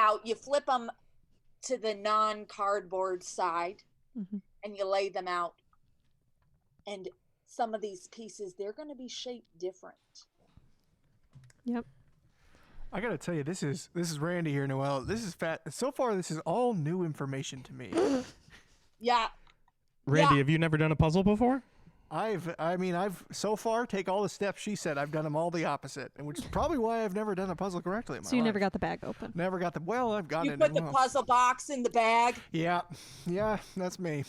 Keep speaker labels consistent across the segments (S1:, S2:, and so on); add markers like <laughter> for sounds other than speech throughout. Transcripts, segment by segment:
S1: out, you flip them to the non cardboard side
S2: Mhm.
S1: and you lay them out. And some of these pieces, they're going to be shaped different.
S2: Yep.
S3: I gotta tell you, this is this is Randy here, Noel. This is fat. So far, this is all new information to me.
S1: Yeah.
S4: Randy,
S1: Yeah.
S4: have you never done a puzzle before?
S3: I've, I mean, I've so far take all the steps she said. I've done them all the opposite, and which is probably why I've never done a puzzle correctly. In my
S2: So you never
S3: life.
S2: got the bag open.
S3: never got the well. I've gotten
S1: You
S3: it.
S1: put the
S3: well.
S1: puzzle box in the bag.
S3: Yeah, yeah, that's me.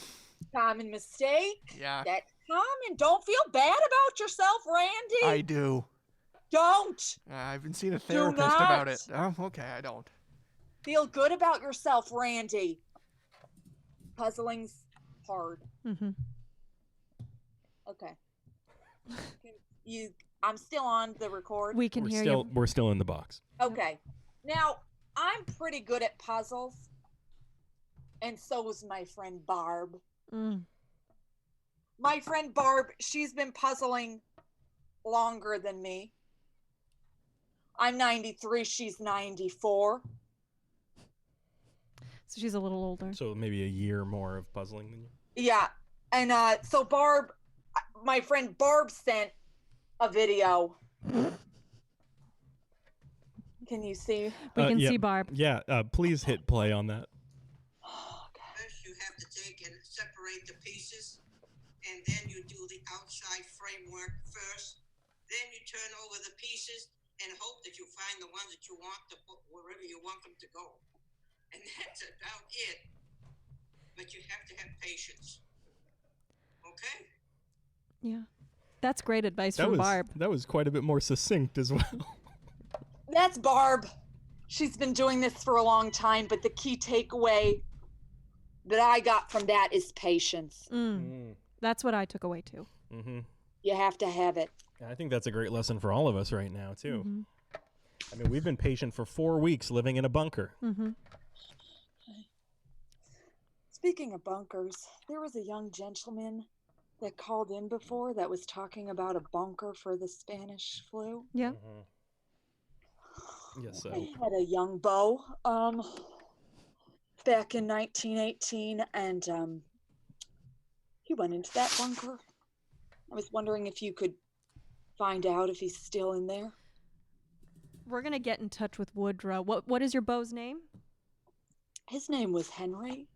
S1: Common mistake.
S3: Yeah,
S1: That's common. Don't feel bad about yourself, Randy.
S3: I do.
S1: Don't
S3: I've been seeing a therapist
S1: not.
S3: about it. Oh, okay, I don't.
S1: feel good about yourself, Randy. Puzzling's hard.
S2: Mm-hmm.
S1: Okay. you I'm still on the record.
S2: We can
S4: We're
S2: hear
S4: still we're still in the box.
S1: Okay. Now, I'm pretty good at puzzles. And so is my friend Barb.
S2: you. Mm.
S1: My friend Barb, she's been puzzling longer than me. I'm 93, she's 94.
S2: So she's a little older.
S4: So maybe a year more of puzzling than you.
S1: Yeah. And uh, so Barb, my friend Barb sent a video. Can you see? <sighs>
S2: We
S4: Uh,
S2: can
S4: yeah.
S2: see Barb.
S4: Yeah, uh, please hit play on that.
S5: First, you have to take and separate the pieces, and then you do the outside framework first. Then you turn over the pieces and hope that you find the ones that you want to put wherever you want them to go. And <laughs> that's about it. But you have to have patience. Okay?
S2: Yeah. That's great advice
S4: That
S2: from
S4: was
S2: Barb.
S4: that was quite a bit more succinct as well.
S1: That's Barb. She's been doing this for a long time, but the key takeaway that I got from that is patience.
S2: Mm.
S4: mm-hmm.
S2: That's what I took away too.
S1: You have to have it.
S4: I think that's a great lesson for all of us right now too.
S2: Mhm.
S4: I mean, we've been patient for four weeks living in a bunker.
S2: Mhm.
S1: Speaking of bunkers, there was a young gentleman that called in before that was talking about a bunker for the Spanish flu.
S2: Yeah.
S4: Mm-hmm. Yes,
S1: I had a young beau um, back in 1918, and um, he went into that bunker. I was wondering if you could find out if he's still in there.
S2: We're gonna get in touch with Woodrow. What What is your beau's name?
S1: His name was Henry.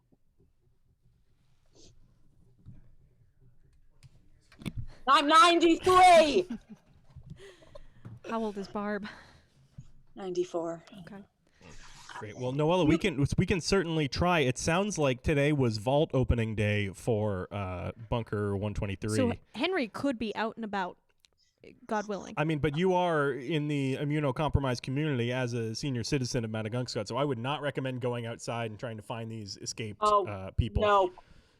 S1: I'm 93!
S2: How old is Barb?
S1: 94.
S2: Okay.
S4: Great. Well, Noella, we can we can certainly try. It sounds like today was vault opening day for uh, Bunker 123.
S2: So Henry could be out and about, God willing.
S4: I mean, but you are in the immunocompromised community as a senior citizen of Madagungscut, so I would not recommend going outside and trying to find these escaped
S1: Oh,
S4: uh, people.
S1: No,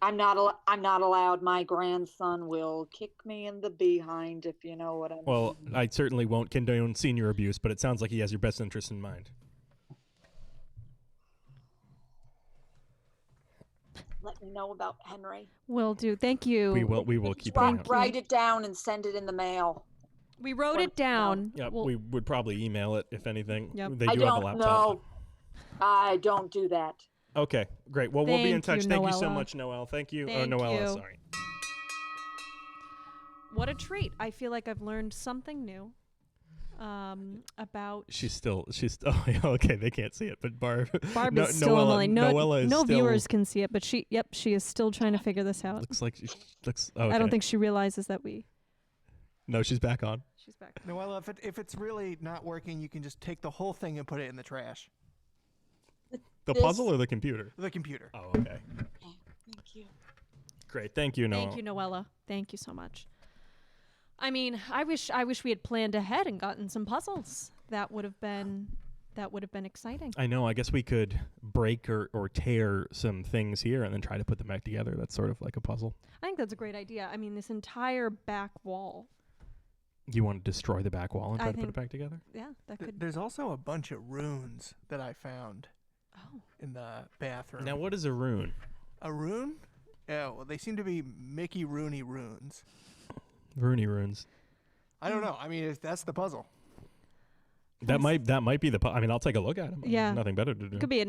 S1: I'm not. Al- I'm not allowed. My grandson will kick me in the behind if you know what I mean.
S4: Well, I certainly won't condone senior abuse, but it sounds like he has your best interest in mind.
S1: let me know about Henry.
S2: Will do. Thank you.
S4: We will we will keep an eye
S1: Write,
S4: out.
S1: write it down and send it in the mail.
S2: We wrote
S1: Well,
S2: it down.
S4: Yeah,
S2: We'll-
S4: we would probably email it if anything.
S2: Yep.
S4: They
S1: I
S4: do have
S1: don't
S4: a laptop.
S1: know. I don't do that.
S4: Okay, great. Well, we'll be in
S2: Thank
S4: touch.
S2: you,
S4: Thank you so
S2: Noella.
S4: much, Noel. Thank you.
S2: Thank
S4: oh,
S2: you.
S4: Noella, sorry.
S2: what a treat! I feel like I've learned something new. Um, about
S4: She's still she's still <laughs> okay. They can't see it, but Barb
S2: Barb
S4: No-
S2: is still
S4: Noella,
S2: on the line. No,
S4: Noella is
S2: no
S4: still, Ah,
S2: viewers can see it, but she. Yep, she is still trying to figure this out.
S4: looks like she looks. Okay.
S2: I don't think she realizes that we.
S4: no. She's back on.
S2: She's back.
S3: Noella, if it, if it's really not working, you can just take the whole thing and put it in the trash.
S4: The
S1: This-
S4: puzzle or the computer?
S3: The computer.
S4: Oh, okay.
S1: Thank you.
S4: Great. Thank you, Noel.
S2: Thank you, Noella. Thank you so much. I mean, I wish I wish we had planned ahead and gotten some puzzles. That would have been that would have been exciting.
S4: I know. I guess we could break or, or tear some things here and then try to put them back together. That's sort of like a puzzle.
S2: I think that's a great idea. I mean, this entire back wall.
S4: You want to destroy the back wall and
S2: I
S4: try to put
S2: think-
S4: it back together?
S2: Yeah, that
S3: Th-
S2: could.
S3: There's also a bunch of runes that I found
S2: Oh,
S3: in the bathroom.
S4: Now, what is a rune?
S3: a rune? Yeah, well, they seem to be Mickey Rooney runes.
S4: Rooney runes.
S2: Hmm.
S3: I don't know. I mean, if that's the puzzle.
S4: That might that might be the. Po- I mean, I'll take a look at them.
S2: Yeah.
S4: nothing better to do.
S2: Could be a